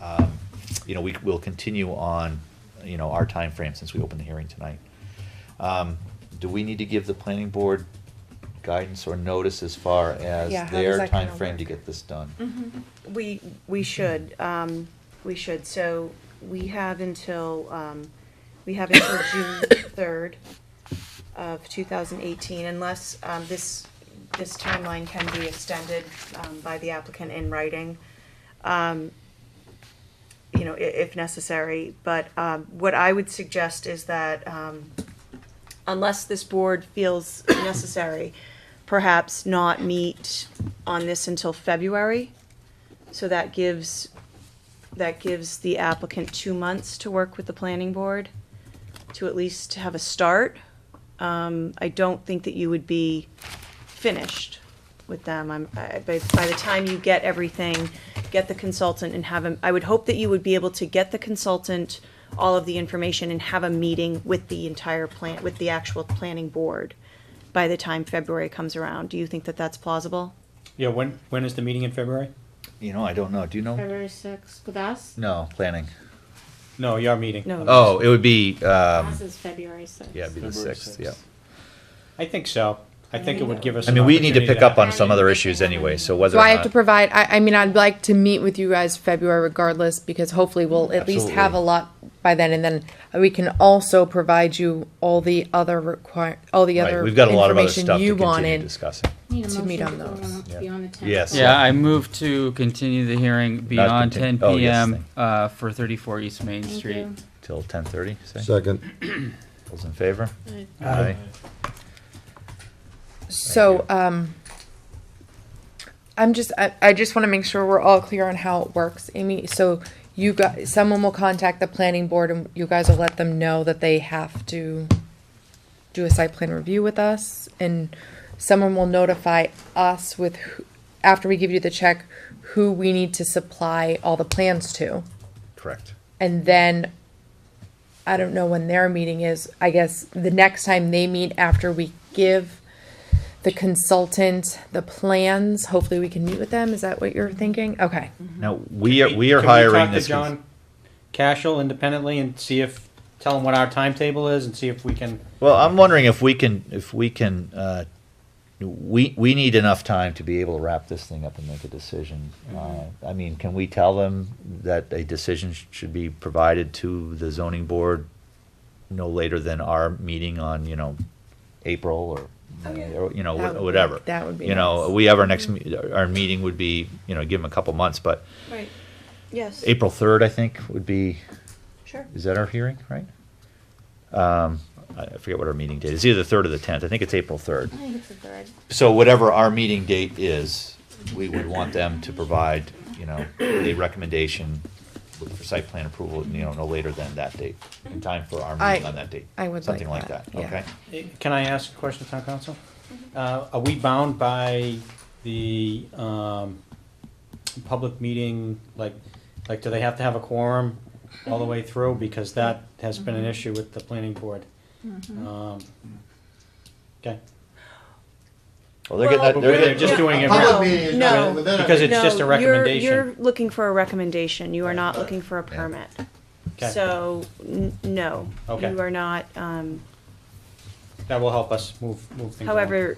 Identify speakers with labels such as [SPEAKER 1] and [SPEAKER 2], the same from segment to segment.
[SPEAKER 1] um, you know, we, we'll continue on, you know, our time frame since we opened the hearing tonight. Um, Do we need to give the planning board guidance or notice as far as
[SPEAKER 2] Yeah, how does
[SPEAKER 1] their
[SPEAKER 2] that kinda
[SPEAKER 1] timeframe to
[SPEAKER 2] work?
[SPEAKER 1] get this done?
[SPEAKER 3] Mm-hmm.
[SPEAKER 2] We, we should, um, we should, so we have until, um, we have until June third of two thousand eighteen, unless, um, this, this timeline can be extended, um, by the applicant in writing. Um, you know, i- if necessary, but, um, what I would suggest is that, um, unless this board feels necessary, perhaps not meet on this until February. So that gives, that gives the applicant two months to work with the planning board to at least have a start. Um, I don't think that you would be finished with them. I'm, I, by, by the time you get everything, get the consultant and have him, I would hope that you would be able to get the consultant all of the information and have a meeting with the entire plant, with the actual planning board by the time February comes around. Do you think that that's plausible?
[SPEAKER 4] Yeah, when, when is the meeting in February?
[SPEAKER 1] You know, I don't know, do you know?
[SPEAKER 5] February sixth with us.
[SPEAKER 1] No, planning.
[SPEAKER 4] No, your meeting.
[SPEAKER 2] No.
[SPEAKER 1] Oh, it would be, um,
[SPEAKER 5] Us is February sixth.
[SPEAKER 1] yeah, it'd be the
[SPEAKER 6] February
[SPEAKER 1] sixth, yeah.
[SPEAKER 6] sixth.
[SPEAKER 4] I think so. I think it would give us.
[SPEAKER 1] I
[SPEAKER 4] an
[SPEAKER 1] mean, we need to
[SPEAKER 4] opportunity
[SPEAKER 1] pick up
[SPEAKER 4] have-
[SPEAKER 1] on some other issues anyway, so whether
[SPEAKER 3] So
[SPEAKER 1] or
[SPEAKER 3] I have to
[SPEAKER 1] not,
[SPEAKER 3] provide, I, I mean, I'd like to meet with you guys February regardless, because hopefully we'll at least have a
[SPEAKER 1] Absolutely.
[SPEAKER 3] lot by then, and then we can also provide you all the other require, all the other
[SPEAKER 1] right, we've got a lot of other
[SPEAKER 3] information
[SPEAKER 1] stuff to
[SPEAKER 3] you
[SPEAKER 1] continue
[SPEAKER 3] wanted.
[SPEAKER 1] discussing.
[SPEAKER 5] Need a
[SPEAKER 3] to meet
[SPEAKER 5] motion
[SPEAKER 3] on
[SPEAKER 5] go
[SPEAKER 3] those.
[SPEAKER 5] to Be on the tenth.
[SPEAKER 1] Yes.
[SPEAKER 7] Yeah, I move to continue the hearing beyond ten
[SPEAKER 1] continue- oh, yes,
[SPEAKER 7] PM,
[SPEAKER 1] thank-
[SPEAKER 7] uh, for thirty-four East Main
[SPEAKER 5] Thank
[SPEAKER 7] Street.
[SPEAKER 5] you.
[SPEAKER 1] Till ten thirty, say?
[SPEAKER 6] Second.
[SPEAKER 1] Those in favor?
[SPEAKER 5] Aye.
[SPEAKER 1] Aye.
[SPEAKER 3] So,
[SPEAKER 1] Thank you.
[SPEAKER 3] um, I'm just, I, I just wanna make sure we're all clear on how it works, Amy, so you got, someone will contact the planning board and you guys will let them know that they have to do a site plan review with us, and someone will notify us with, who- after we give you the check, who we need to supply all the plans to.
[SPEAKER 1] Correct.
[SPEAKER 3] And then, I don't know when their meeting is, I guess the next time they meet after we give the consultant the plans, hopefully we can meet with them, is that what you're thinking? Okay,
[SPEAKER 1] Now, we are, we are
[SPEAKER 4] Can we talk
[SPEAKER 1] hiring
[SPEAKER 4] to
[SPEAKER 1] this.
[SPEAKER 4] John Cashel independently and see if, tell him what our timetable is and see if we can.
[SPEAKER 1] Well, I'm wondering if we can, if we can, uh, we, we need enough time to be able to wrap this thing up and make a decision.
[SPEAKER 4] Mm-hmm.
[SPEAKER 1] Uh, I mean, can we tell them that a decision sh- should be provided to the zoning board no later than our meeting on, you know, April or, May or, you know,
[SPEAKER 3] That would
[SPEAKER 1] wh-
[SPEAKER 3] be-
[SPEAKER 1] whatever?
[SPEAKER 3] that would be
[SPEAKER 1] You know,
[SPEAKER 3] nice.
[SPEAKER 1] we have our next, me- our our meeting would be, you know, give them a couple months, but
[SPEAKER 2] Right, yes,
[SPEAKER 1] April third, I think, would be
[SPEAKER 2] sure.
[SPEAKER 1] is that our hearing, right? Um, I I forget what our meeting date is, either the third or the tenth, I think it's April third.
[SPEAKER 5] I think it's the third.
[SPEAKER 1] So whatever our meeting date is, we would want them to provide, you know, a recommendation for site plan approval, you know, no later than that date, in time for our
[SPEAKER 3] I-
[SPEAKER 1] meeting on that date.
[SPEAKER 3] I would
[SPEAKER 1] Something
[SPEAKER 3] like
[SPEAKER 1] like that,
[SPEAKER 3] that, yeah.
[SPEAKER 1] okay?
[SPEAKER 4] Eh, Can I ask a question, town council? Uh, are we bound by the, um, public meeting, like, like, do they have to have a quorum all the way through? Because that has been an issue with the planning board. Um, Okay.
[SPEAKER 1] Well, they're getting,
[SPEAKER 2] Well-
[SPEAKER 1] that- they're
[SPEAKER 4] But
[SPEAKER 1] getting.
[SPEAKER 4] they're just doing it.
[SPEAKER 2] No,
[SPEAKER 6] Public meeting is
[SPEAKER 2] no,
[SPEAKER 6] not within.
[SPEAKER 4] Because it's just a
[SPEAKER 2] No, you're-
[SPEAKER 4] recommendation.
[SPEAKER 2] You're looking for a recommendation, you are not looking for a permit.
[SPEAKER 4] Okay.
[SPEAKER 2] So, n- no,
[SPEAKER 4] Okay.
[SPEAKER 2] you are not, um,
[SPEAKER 4] That will help us move, move things along.
[SPEAKER 2] however,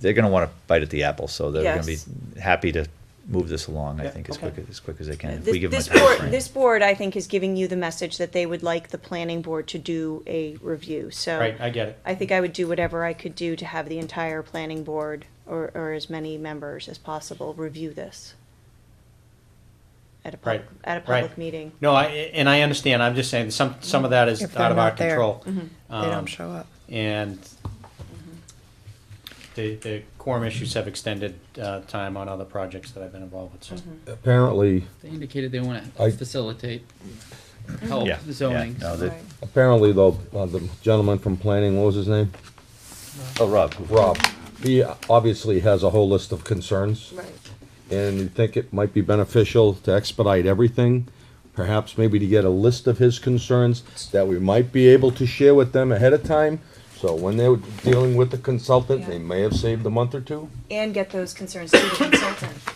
[SPEAKER 1] they're gonna wanna bite at the apple, so they're gonna be
[SPEAKER 2] Yes.
[SPEAKER 1] happy to move this along, I
[SPEAKER 4] Yeah,
[SPEAKER 1] think, as
[SPEAKER 4] okay.
[SPEAKER 1] quick, as quick as they can, if we
[SPEAKER 2] this
[SPEAKER 1] give them a
[SPEAKER 2] this
[SPEAKER 1] timeframe.
[SPEAKER 2] board, this board, I think, is giving you the message that they would like the planning board to do a review, so.
[SPEAKER 4] Right, I get it.
[SPEAKER 2] I think I would do whatever I could do to have the entire planning board, or, or as many members as possible, review this. At a public,
[SPEAKER 4] Right,
[SPEAKER 2] at a
[SPEAKER 4] right.
[SPEAKER 2] public meeting.
[SPEAKER 4] No, I, and I understand, I'm just saying, some, some of that is
[SPEAKER 3] If they're
[SPEAKER 4] out of our
[SPEAKER 3] not there. Mm-hmm.
[SPEAKER 4] control.
[SPEAKER 2] Mm-hmm.
[SPEAKER 3] they
[SPEAKER 4] Um,
[SPEAKER 3] don't Mm-hmm. show up.
[SPEAKER 4] And the, the quorum issues have extended, uh, time on other projects that I've been involved with,
[SPEAKER 3] Mm-hmm.
[SPEAKER 2] Mm-hmm.
[SPEAKER 4] so.
[SPEAKER 6] Apparently,
[SPEAKER 7] They indicated they wanna
[SPEAKER 6] I-
[SPEAKER 7] facilitate, help
[SPEAKER 1] Yeah, yeah,
[SPEAKER 7] zoning.
[SPEAKER 1] no, they-
[SPEAKER 6] apparently though, uh, the gentleman from planning, what was his name?
[SPEAKER 1] Oh, Rob.
[SPEAKER 6] Rob. He obviously has a whole list of concerns.
[SPEAKER 2] Right.
[SPEAKER 6] and you think it might be beneficial to expedite everything, perhaps maybe to get a list of his concerns that we might be able to share with them ahead of time. So when they're dealing with the consultant, they may have saved a month or two.
[SPEAKER 2] And get those concerns to the consultant.